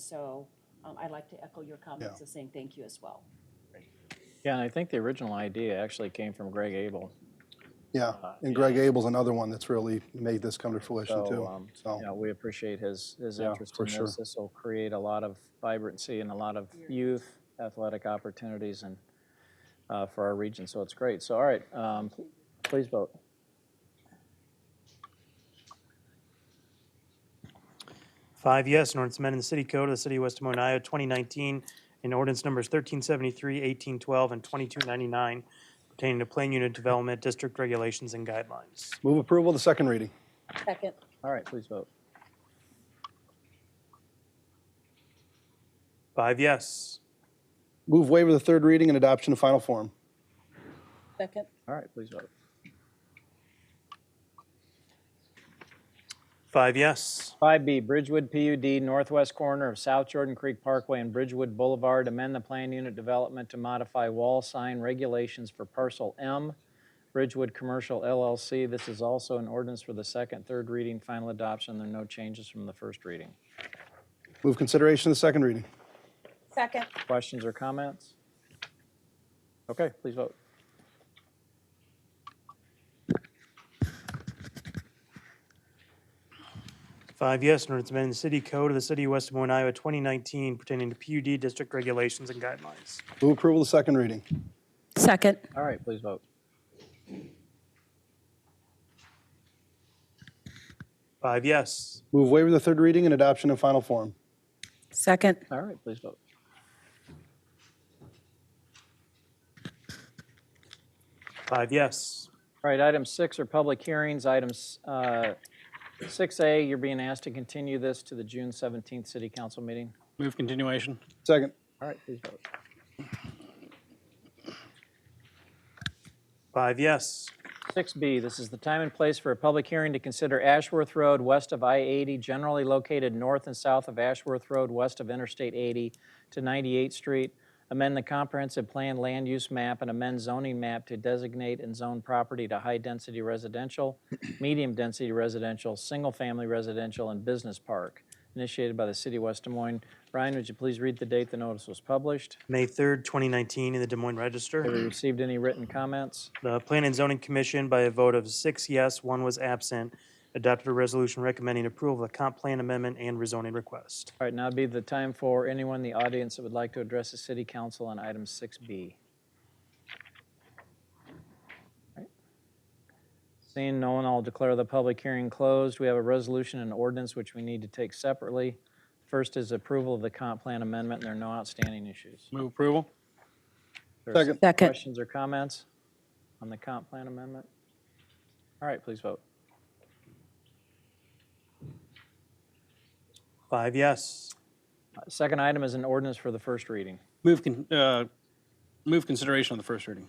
so um, I'd like to echo your comments of saying thank you as well. Yeah, and I think the original idea actually came from Greg Abel. Yeah, and Greg Abel's another one that's really made this come to fruition Uh, So, too. um, So, you know, we appreciate his, his Yeah, interest for in sure. this. This will create a lot of vibrancy and a lot of youth athletic opportunities and, uh, for our region, so it's great. So, all right, um, pl- please vote. Five yes, an ordinance amending the city code of the city of West Des Moines, Iowa, 2019, in ordinance numbers 1373, 1812, and 2299 pertaining to plan unit development, district regulations, and guidelines. move approval of the second reading. Second, All right, please vote. Five yes. Move waiver of the third reading and adoption of final form. second, All right, please vote. Five yes. 5B, Bridgewood PUD, northwest corner of South Jordan Creek Parkway and Bridgewood Boulevard, amend the plan unit development to modify wall sign regulations for parcel M, Bridgewood Commercial LLC. This is also an ordinance for the second, third reading, final adoption. There are no changes from the first reading. Move consideration of the second reading. second, Questions or comments? Okay, please vote. Five yes, an ordinance amending the city code of the city of West Des Moines, Iowa, 2019 pertaining to PUD district regulations and guidelines. Move approval of the second reading. Second, All right, please vote. Five yes. Move waiver of the third reading and adoption of final form. second, All right, please vote. Five yes. All right, item six are public hearings. Items uh, 6A, you're being asked to continue this to the June 17th City Council meeting. Move continuation. Second, All right, please vote. Five yes. 6B, this is the time and place for a public hearing to consider Ashworth Road west of I-80, generally located north and south of Ashworth Road, west of Interstate 80 to 98th Street, amend the comprehensive plan land use map and amend zoning map to designate and zone property to high-density residential, medium-density residential, single-family residential, and business park, initiated by the city of West Des Moines. Ryan, would you please read the date the notice was published? May 3rd, 2019, in the Des Moines Register. Have we received any written comments? The Plan and Zoning Commission, by a vote of six yes, one was absent, adopted a resolution recommending approval of the comp plan amendment and rezoning request. All right, now would be the time for anyone in the audience that would like to address the city council on item 6B. All right. Seeing no one, I'll declare the public hearing closed. We have a resolution and ordinance which we need to take separately. First is approval of the comp plan amendment, and there are no outstanding issues. Move approval. There are Second. Second. Questions or comments on the comp plan amendment? All right, please vote. Five yes. Uh, Second item is an ordinance for the first reading. Move, con- uh, move consideration of the first reading.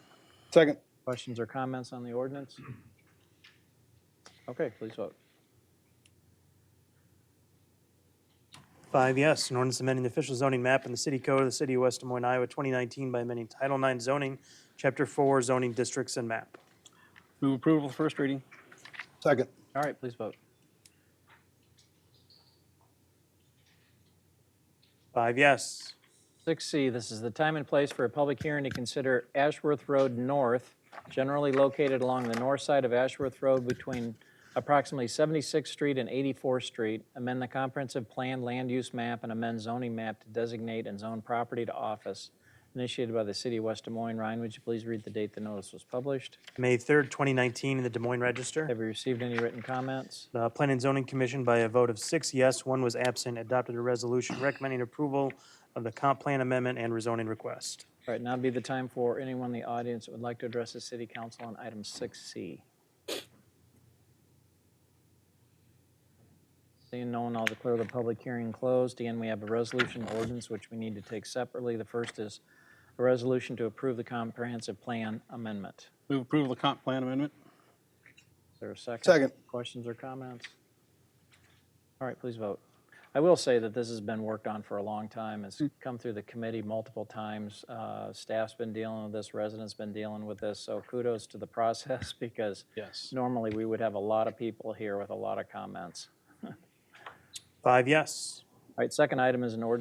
second, Questions or comments on the ordinance? Okay, please vote. Five yes, an ordinance amending the official zoning map in the city code of the city of West Des Moines, Iowa, 2019 by amending Title IX zoning, Chapter 4 zoning districts and map. Move approval of the first reading. second, All right, please vote. Five yes. 6C, this is the time and place for a public hearing to consider Ashworth Road North, generally located along the north side of Ashworth Road between approximately 76th Street and 84th Street, amend the comprehensive plan land use map and amend zoning map to designate and zone property to office, initiated by the city of West Des Moines. Ryan, would you please read the date the notice was published? May 3rd, 2019, in the Des Moines Register. Have we received any written comments? The Plan and Zoning Commission, by a vote of six yes, one was absent, adopted a resolution recommending approval of the comp plan amendment and rezoning request. All right, now would be the time for anyone in the audience that would like to address the city council on item 6C. Seeing no one, I'll declare the public hearing closed. Again, we have a resolution ordinance which we need to take separately. The first is a resolution to approve the comprehensive plan amendment. Move approval of the comp plan amendment. Is there a second? Second. Questions or comments? All right, please vote. I will say that this has been worked on for a long time. It's come through the committee multiple times. Uh, Staff's been dealing with this, residents been dealing with this, so kudos to the process because Yes. normally we would have a lot of people here with a lot of comments. Five yes. All right, second item is an ordinance